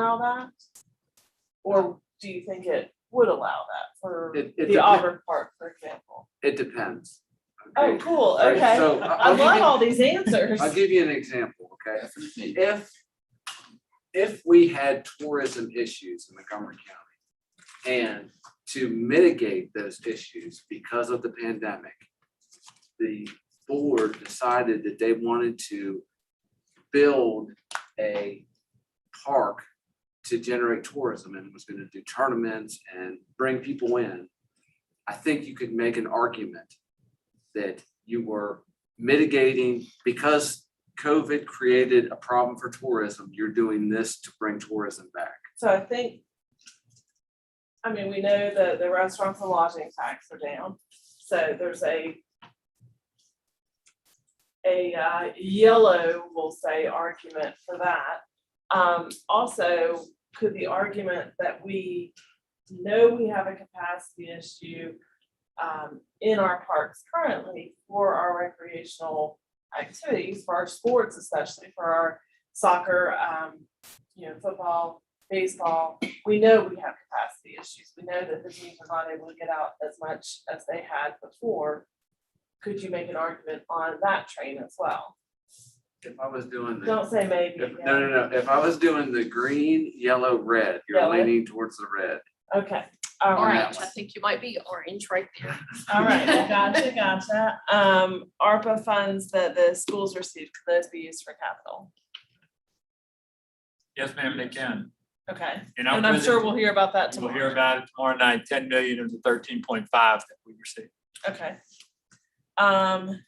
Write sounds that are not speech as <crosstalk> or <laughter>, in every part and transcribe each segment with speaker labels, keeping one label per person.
Speaker 1: allow that? Or do you think it would allow that for
Speaker 2: It- it
Speaker 1: the
Speaker 2: depen-
Speaker 1: Auburn Park, for example?
Speaker 2: It depends.
Speaker 1: Oh,
Speaker 2: okay?
Speaker 1: cool,
Speaker 2: Right,
Speaker 1: okay.
Speaker 2: So uh, I-
Speaker 1: I
Speaker 2: I'll give
Speaker 1: love
Speaker 2: you,
Speaker 1: all these answers.
Speaker 2: I'll give you an example, okay? If, if we had tourism issues in Montgomery County and to mitigate those issues because of the pandemic, the board decided that they wanted to build a park to generate tourism and was gonna do tournaments and bring people in. I think you could make an argument that you were mitigating, because COVID created a problem for tourism, you're doing this to bring tourism back.
Speaker 1: So I think, I mean, we know that the restaurants and lodging tax are down, so there's a a uh, yellow, we'll say, argument for that. Um, also, could the argument that we know we have a capacity issue um, in our parks currently for our recreational activities, for our sports especially, for our soccer, um, you know, football, baseball, we know we have capacity issues. We know that the teams are not able to get out as much as they had before. Could you make an argument on that train as well?
Speaker 2: If I was doing the,
Speaker 1: Don't say maybe.
Speaker 2: if- no, no, no, if I was doing the green, yellow, red, you're
Speaker 1: Yellow.
Speaker 2: leaning towards the red.
Speaker 1: Okay, all
Speaker 2: Or
Speaker 1: right,
Speaker 2: not.
Speaker 3: Orange, I think you might be orange right there.
Speaker 1: all right, well, <laughs> gotcha, gotcha. Um, ARPA funds that the schools received, could those be used for capital?
Speaker 4: Yes, ma'am, they can.
Speaker 1: Okay,
Speaker 4: And
Speaker 1: and I'm sure we'll hear about that
Speaker 4: We'll hear
Speaker 1: tomorrow.
Speaker 4: about it tomorrow night, ten million of the thirteen point five that we received.
Speaker 1: Okay. Um,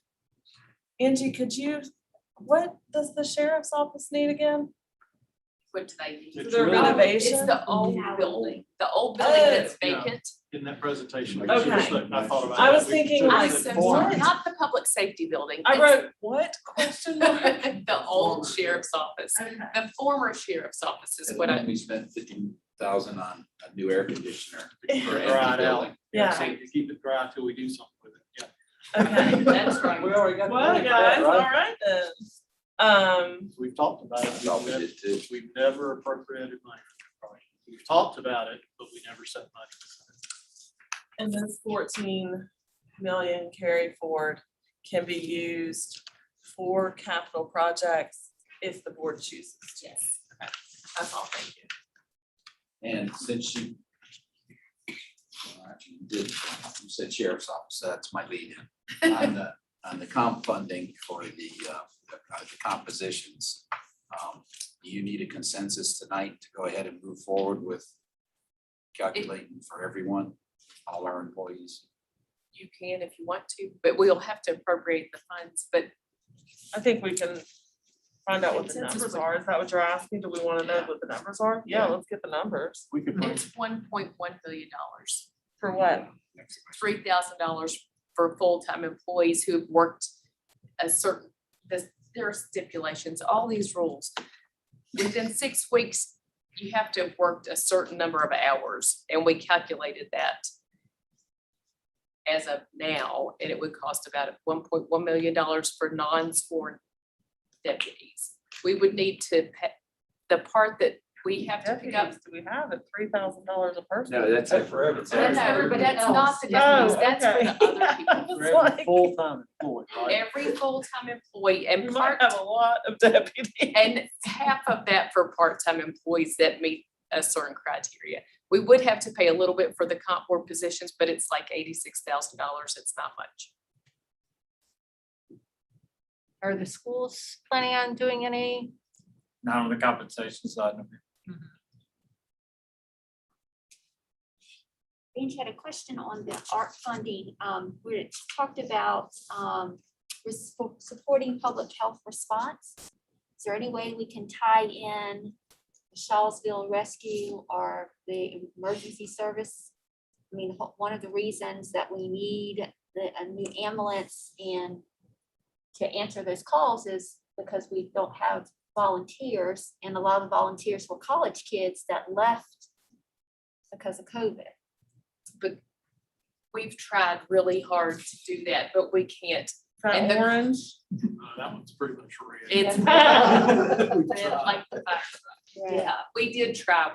Speaker 1: Angie, could you, what does the sheriff's office need again?
Speaker 3: What do they need?
Speaker 5: The
Speaker 1: The
Speaker 5: drill.
Speaker 1: renovation?
Speaker 3: It's the old building, the old building that's
Speaker 5: Oh. Yeah.
Speaker 3: vacant.
Speaker 5: in that presentation.
Speaker 1: Okay.
Speaker 5: I thought about
Speaker 1: I was
Speaker 5: that.
Speaker 1: thinking
Speaker 5: We
Speaker 1: like
Speaker 3: I
Speaker 5: took
Speaker 3: said,
Speaker 5: the form.
Speaker 1: what?
Speaker 3: not the public safety building.
Speaker 1: I
Speaker 3: it's
Speaker 1: wrote, what <laughs> question mark?
Speaker 3: <laughs> The old sheriff's office,
Speaker 1: Okay.
Speaker 3: the former sheriff's office is what
Speaker 5: <laughs>
Speaker 3: I,
Speaker 6: we spent fifteen thousand on a new air conditioner for
Speaker 5: Right
Speaker 6: every
Speaker 5: out.
Speaker 6: building.
Speaker 1: Yeah.
Speaker 5: So you keep it dry till we do something with it,
Speaker 1: Okay.
Speaker 3: that's right.
Speaker 5: We already got. the
Speaker 1: Well,
Speaker 5: money for
Speaker 1: guys,
Speaker 5: that,
Speaker 1: all
Speaker 5: right?
Speaker 1: right then. Um,
Speaker 5: We've talked about it.
Speaker 6: I thought we did too.
Speaker 5: We've never appropriated money. for it. We've talked about it, but we never set money.
Speaker 1: and this fourteen million carried forward can be used for capital projects if the board chooses. Yes. That's all, thank you.
Speaker 6: And since you all right, you did, you said sheriff's office, that's my lead in on the, on the comp funding for the, uh, uh, the compositions. Um, do You need a consensus tonight to go ahead and move forward with calculating for everyone, all our employees.
Speaker 3: You can if you want to, but we'll have to appropriate the funds, but
Speaker 1: I think we can find out what the
Speaker 3: Consensus
Speaker 1: numbers
Speaker 3: would-
Speaker 1: are. Is that what you're asking? Do we wanna know what the numbers are? Yeah, let's get the numbers.
Speaker 5: We could put
Speaker 3: it's one point one billion dollars.
Speaker 1: For what?
Speaker 3: Three thousand dollars for full-time employees who have worked a certain, this, there are stipulations, all these rules. Within six weeks, you have to have worked a certain number of hours, and we calculated that as of now, and it would cost about one point one million dollars for non-sworn deputies. We would need to, pa- the part that we have to pick up
Speaker 1: Deputies, do we have at three thousand dollars a person?
Speaker 2: No, that's it.
Speaker 5: for every-
Speaker 2: That's
Speaker 3: no,
Speaker 2: it.
Speaker 3: no, but that's
Speaker 5: else.
Speaker 3: not the
Speaker 1: Oh,
Speaker 3: difference, that's for the
Speaker 1: okay.
Speaker 3: other
Speaker 1: <laughs>
Speaker 3: people.
Speaker 1: I was
Speaker 5: for every
Speaker 1: like-
Speaker 5: full-time employee, right?
Speaker 3: Every full-time employee
Speaker 1: We
Speaker 3: and
Speaker 1: might
Speaker 3: part,
Speaker 1: have a lot of deputies.
Speaker 3: and half of that for part-time employees that meet a certain criteria. We would have to pay a little bit for the comp board positions, but it's like eighty-six thousand dollars, it's not much.
Speaker 7: Are the schools planning on doing any?
Speaker 4: Not on the compensation side. no, ma'am.
Speaker 8: Angie had a question on the art funding, um, where it talked about, um, res- supporting public health response. Is there any way we can tie in the Shawsville Rescue or the emergency service? I mean, ho- one of the reasons that we need the, a new ambulance and to answer those calls is because we don't have volunteers, and a lot of the volunteers were college kids that left because of COVID.
Speaker 3: We've tried really hard to do that, but we can't.
Speaker 1: Front
Speaker 3: And the-
Speaker 1: orange.
Speaker 5: <laughs> Uh, That one's pretty much red.
Speaker 3: It's <laughs>
Speaker 5: We
Speaker 3: like
Speaker 5: tried.
Speaker 3: the fact
Speaker 8: Right.
Speaker 3: Yeah, we did try.